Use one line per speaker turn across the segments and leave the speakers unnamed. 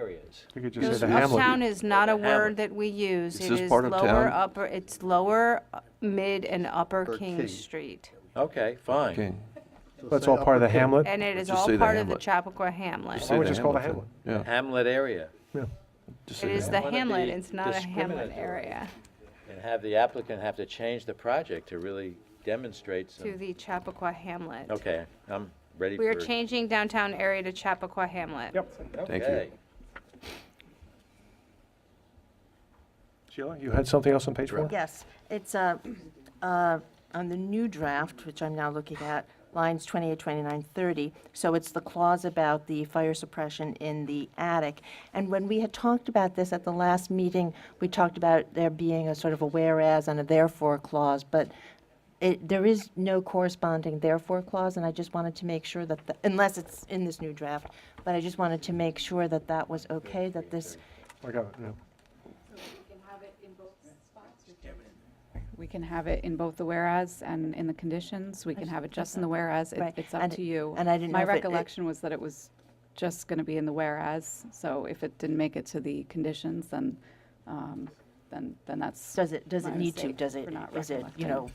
is.
You could just say the
Uptown
hamlet.
is not a
The
word
hamlet.
that we use.
Is
It
this
is
part of
lower,
town?
upper, it's lower, uh, mid, and upper King
King.
Street.
Okay, fine.
King.
So
That's
say
all part of the
Upper King,
hamlet.
And it is
Just
all
say the
part of the
hamlet.
Chappaqua Hamlet.
Say
would just call it a
then. Yeah.
Hamlet area,
just
It
say
is
the
the
Wanna
hamlet,
be
it's not a hamlet
discriminatory.
area,
and have the applicant have to change the project to really demonstrate
to
some,
the Chappaqua Hamlet.
okay, I'm ready for.
We are changing downtown area to Chappaqua Hamlet.
Yep.
Thank you.
Okay.
Sheila, you had something else on page four?
Yes, it's uh, uh, on the new draft, which I'm now looking at, lines 28, 29, 30. So it's the clause about the fire suppression in the attic. And when we had talked about this at the last meeting, we talked about there being a sort of a whereas and a therefore clause, but it, there is no corresponding therefore clause, and I just wanted to make sure that, the- unless it's in this new draft, but I just wanted to make sure that that was okay, that this
I got it, yeah.
We can have it in both the whereas and in the conditions. We can have it just in the whereas. It-
Right,
It's up
and-
to you.
and I didn't
My
know if it- it-
recollection was that it was just going to be in the whereas. So if it didn't make it to the conditions, then, um, then, then that's.
Does it, does it
my
need to,
mistake
does it,
for not
is it, you
recollecting.
know,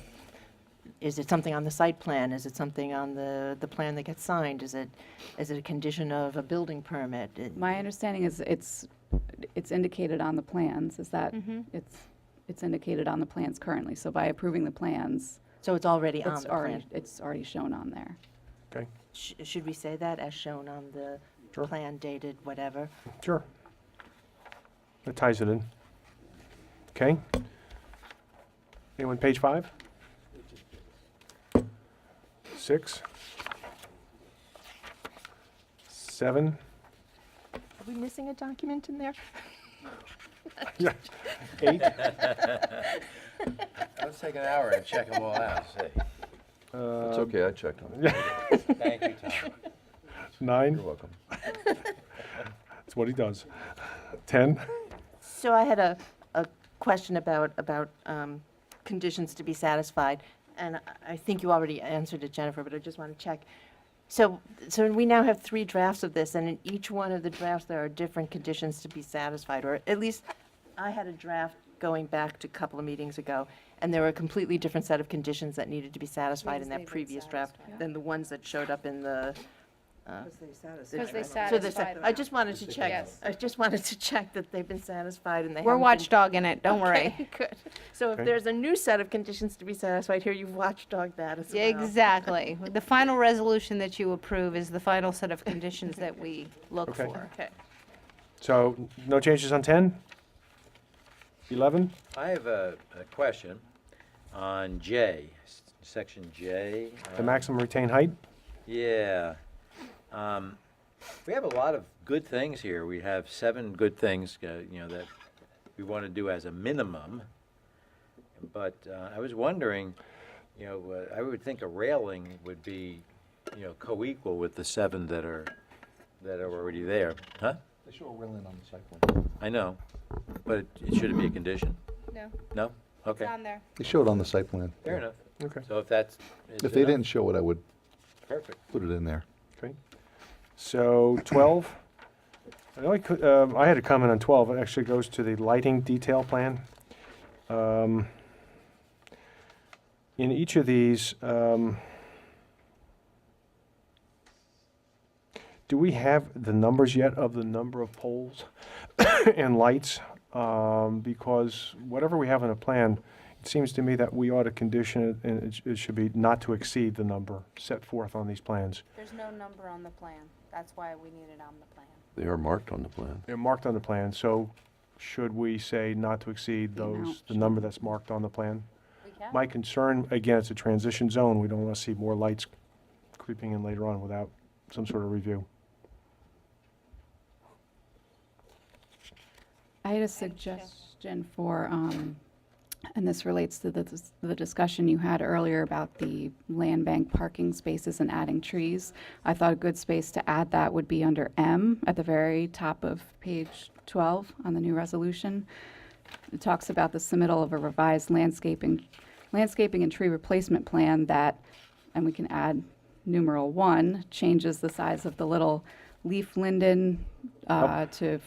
is it something on the site plan? Is it something on the, the plan that gets signed? Is it, is it a condition of a building permit? It-
My understanding is it's, it's indicated on the plans, is that
Mm-hmm.
it's, it's indicated on the plans currently. So by approving the plans,
So it's already on
it's
the plan?
already, it's already shown on there.
Okay,
Sh- Should we say that as shown on the
Sure.
plan dated whatever?
sure. That ties it in. Okay. Anyone, page five? Six? Seven?
Are we missing a document in there?
Yeah. Eight?
Let's take an hour and check them all out, see.
It's okay, I checked on it.
Thank you, Tom.
Nine?
You're welcome.
That's what he does. Ten?
So I had a, a question about, about um, conditions to be satisfied, and I- I think you already answered it, Jennifer, but I just want to check. So, so we now have three drafts of this, and in each one of the drafts, there are different conditions to be satisfied, or at least I had a draft going back to a couple of meetings ago, and there were a completely different set of conditions that needed to be satisfied in that previous draft than the ones that showed up in the. uh,
Because they
So this-
satisfy
I
them.
just wanted to check,
Yes.
I just wanted to check that they've been satisfied and they
We're
haven't been-
watchdogging it, don't worry.
Okay, good. So
Okay.
if there's a new set of conditions to be satisfied here, you've watchdog that as well.
Exactly. The final resolution that you approve is the final set of conditions that we look
Okay.
for.
Okay.
So, no changes on ten? Eleven?
I have a, a question on J, s- section J.
The
um,
maximum retained height?
Yeah. Um, we have a lot of good things here. We have seven good things, uh, you know, that we want to do as a minimum. But uh, I was wondering, you know, uh, I would think a railing would be, you know, co-equal with the seven that are, that are already there, huh?
They show a railing on the site plan.
I know, but it- it should it be a condition?
No,
No? Okay,
there.
They show it on the site plan.
fair enough.
Okay.
So if that's. is
If they
enough,
didn't show it, I would
Perfect.
put it in there.
Okay. So 12, I only cou- um, I had a comment on 12. It actually goes to the lighting detail plan. Um, In each of these, um, do we have the numbers yet of the number of poles and lights? Um, Because whatever we have in a plan, it seems to me that we ought to condition it, and it sh- it should be not to exceed the number set forth on these plans.
There's no number on the plan. That's why we need it on the plan.
They are marked on the plan.
They're marked on the plan, so should we say not to exceed
The amount,
those, the
sure.
number that's marked on the plan?
We can.
My concern, again, it's a transition zone, we don't want to see more lights creeping in later on without some sort of review.
I had a suggestion for, um, and this relates to the, dis- the discussion you had earlier about the land bank parking spaces and adding trees. I thought a good space to add that would be under M at the very top of page 12 on the new resolution. It talks about the submittal of a revised landscaping, landscaping and tree replacement plan that, and we can add numeral one, changes the size of the little leaf linden uh, to